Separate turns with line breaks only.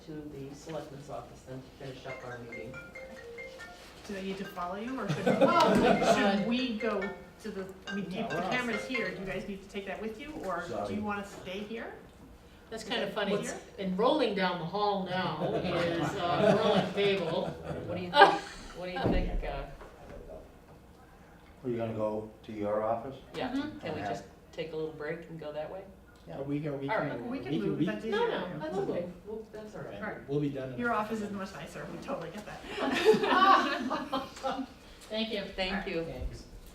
to the selectman's office then to finish up our meeting.
Do they need to follow you, or should,
Oh,
should
God.
we go to the, I mean, do you-
No,
the
we're not.
camera's here, do you guys need to take that with you, or do
Sorry.
you wanna stay here?
That's kind of funny,
What's-
and rolling down the hall now is, uh, rolling table.
What do you think, what do you think, uh,
Are you gonna go to your office?
yeah, can we
Okay.
just take a little break and go that way?
A week, a week.
All right.
and-
We can move,
we-
that's easier.
No, no, I will
Okay,
move.
well, that's all right.
Right.
We'll be done. in-
Your office is much nicer, we totally get that.
Thank you.
Thank you.
Thanks.